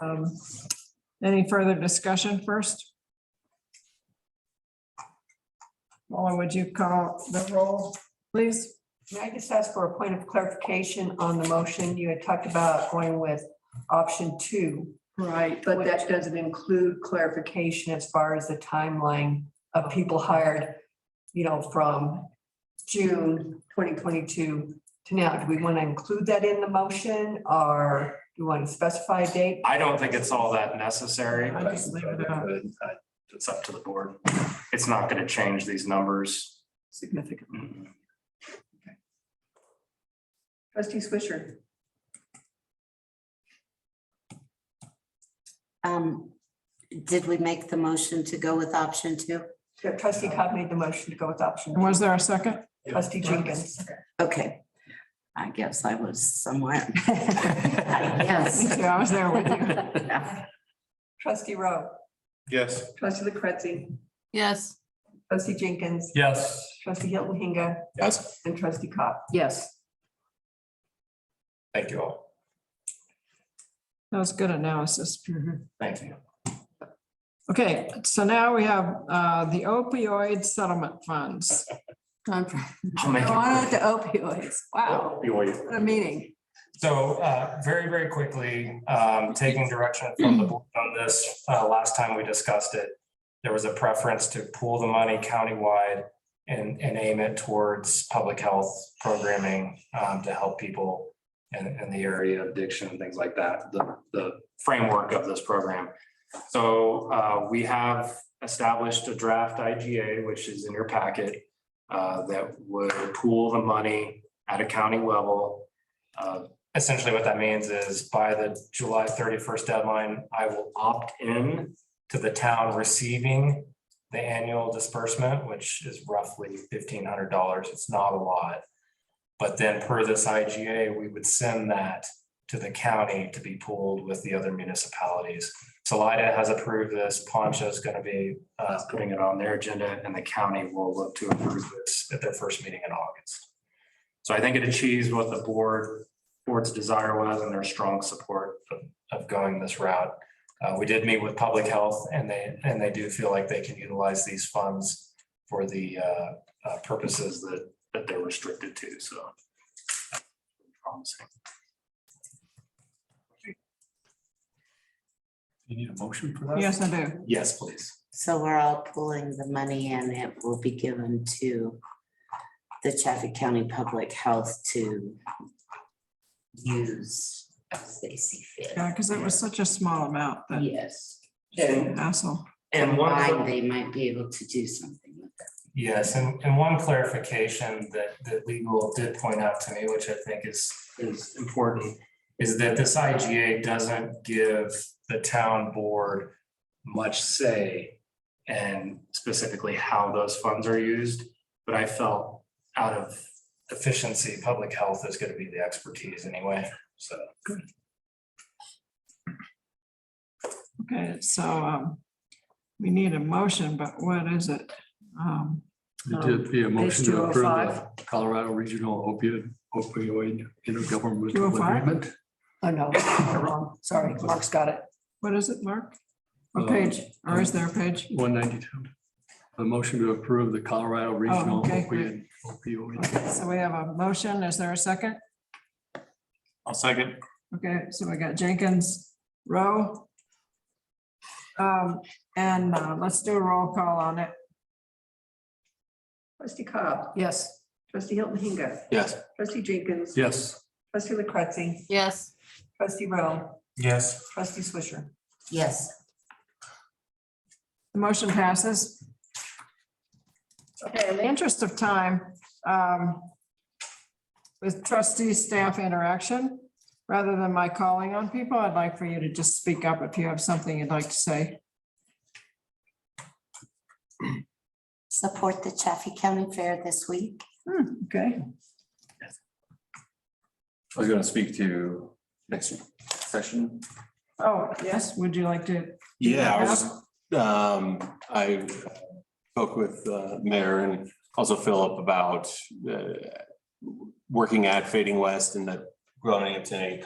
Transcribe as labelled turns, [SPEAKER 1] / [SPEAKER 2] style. [SPEAKER 1] Um, Any further discussion first? Laura, would you call the roll, please?
[SPEAKER 2] May I just ask for a point of clarification on the motion? You had talked about going with option two.
[SPEAKER 1] Right,
[SPEAKER 2] But that doesn't include clarification as far as the timeline of people hired, you know, from June twenty twenty-two to now. Do we want to include that in the motion or do we want to specify a date?
[SPEAKER 3] I don't think it's all that necessary,
[SPEAKER 1] I
[SPEAKER 3] but
[SPEAKER 1] just leave it out.
[SPEAKER 3] uh, it's up to the board. It's not gonna change these numbers.
[SPEAKER 2] Significant.
[SPEAKER 3] Mm,
[SPEAKER 2] Trustee Swisher.
[SPEAKER 4] Um, did we make the motion to go with option two?
[SPEAKER 2] Trustee Cobb made the motion to go with option.
[SPEAKER 1] Was there a second?
[SPEAKER 2] Trustee Jenkins.
[SPEAKER 4] Okay. I guess I was somewhere. Yes.
[SPEAKER 1] Yeah, I was there with you.
[SPEAKER 2] Trustee Rowe.
[SPEAKER 5] Yes.
[SPEAKER 2] Trustee LaCretzi.
[SPEAKER 6] yes.
[SPEAKER 2] Trustee Jenkins.
[SPEAKER 5] Yes.
[SPEAKER 2] Trustee Hilton Hinga
[SPEAKER 5] Yes.
[SPEAKER 2] and trustee Cobb. Yes.
[SPEAKER 5] Thank you all.
[SPEAKER 1] That was good analysis.
[SPEAKER 3] Thank you.
[SPEAKER 1] Okay, so now we have uh, the opioid settlement funds.
[SPEAKER 6] Gone from
[SPEAKER 3] I'll make
[SPEAKER 6] marijuana to
[SPEAKER 3] it.
[SPEAKER 6] opioids. Wow,
[SPEAKER 3] Opioid.
[SPEAKER 6] what a meeting.
[SPEAKER 3] So uh, very, very quickly, um, taking direction from the board on this, uh, last time we discussed it, there was a preference to pool the money countywide and, and aim it towards public health programming um, to help people in, in the area of addiction and things like that, the, the framework of this program. So uh, we have established a draft IGA, which is in your packet, uh, that would pool the money at a county level uh, essentially what that means is by the July thirty-first deadline, I will opt in to the town receiving the annual disbursement, which is roughly fifteen hundred dollars. It's not a lot. But then per this IGA, we would send that to the county to be pooled with the other municipalities. Salida has approved this. Poncha's gonna be uh, putting it on their agenda and the county will look to approve this at their first meeting in August. So I think it achieves what the board board's desire was and their strong support of, of going this route. Uh, we did meet with public health and they, and they do feel like they can utilize these funds for the, uh, uh, purposes that, that they're restricted to, so. Promising.
[SPEAKER 5] You need a motion for that?
[SPEAKER 1] Yes, I do.
[SPEAKER 3] Yes, please.
[SPEAKER 4] So we're all pulling the money and it will be given to the Chaffey County Public Health to use as they see fit.
[SPEAKER 1] Yeah, because it was such a small amount that
[SPEAKER 4] Yes.
[SPEAKER 3] And,
[SPEAKER 1] hassle.
[SPEAKER 3] and one. of the-
[SPEAKER 4] Combined, they might be able to do something with that.
[SPEAKER 3] Yes, and, and one clarification that, that legal did point out to me, which I think is, is important, is that this IGA doesn't give the town board much say and specifically how those funds are used, but I felt out of efficiency, public health is gonna be the expertise anyway, so.
[SPEAKER 1] Okay, so um, we need a motion, but what is it? Um,
[SPEAKER 7] It did be a motion to approve
[SPEAKER 2] 205.
[SPEAKER 7] the Colorado Regional Opioid opioid intergovernmental
[SPEAKER 1] 205?
[SPEAKER 7] agreement.
[SPEAKER 2] Oh, no, I'm wrong. Sorry, Mark's got it.
[SPEAKER 1] What is it, Mark? What
[SPEAKER 7] Um,
[SPEAKER 1] page? Or is there a page?
[SPEAKER 7] One ninety-two. A motion to approve the Colorado Regional
[SPEAKER 1] Oh, okay,
[SPEAKER 7] Opioid opioid
[SPEAKER 1] Okay, So we have a motion. Is there a second?
[SPEAKER 5] I'll second.
[SPEAKER 1] Okay, so we got Jenkins, Rowe. Um, and uh, let's do a roll call on it.
[SPEAKER 2] Trustee Cobb. Yes. Trustee Hilton Hinga.
[SPEAKER 5] Yes.
[SPEAKER 2] Trustee Jenkins.
[SPEAKER 7] Yes,
[SPEAKER 2] Trustee LaCretzi.
[SPEAKER 6] Yes,
[SPEAKER 2] Trustee Rowe.
[SPEAKER 3] Yes.
[SPEAKER 2] Trustee Swisher.
[SPEAKER 4] Yes.
[SPEAKER 1] The motion passes. Okay, in the interest of time, um, with trustee staff interaction, rather than my calling on people, I'd like for you to just speak up if you have something you'd like to say.
[SPEAKER 4] support the Chaffey County Fair this week.
[SPEAKER 1] Okay,
[SPEAKER 8] I was gonna speak to next session.
[SPEAKER 1] oh, yes, would you like to?
[SPEAKER 8] Yeah, I was, um, I spoke with uh, Mayor and also Philip about uh, working at Fading West and that growing into a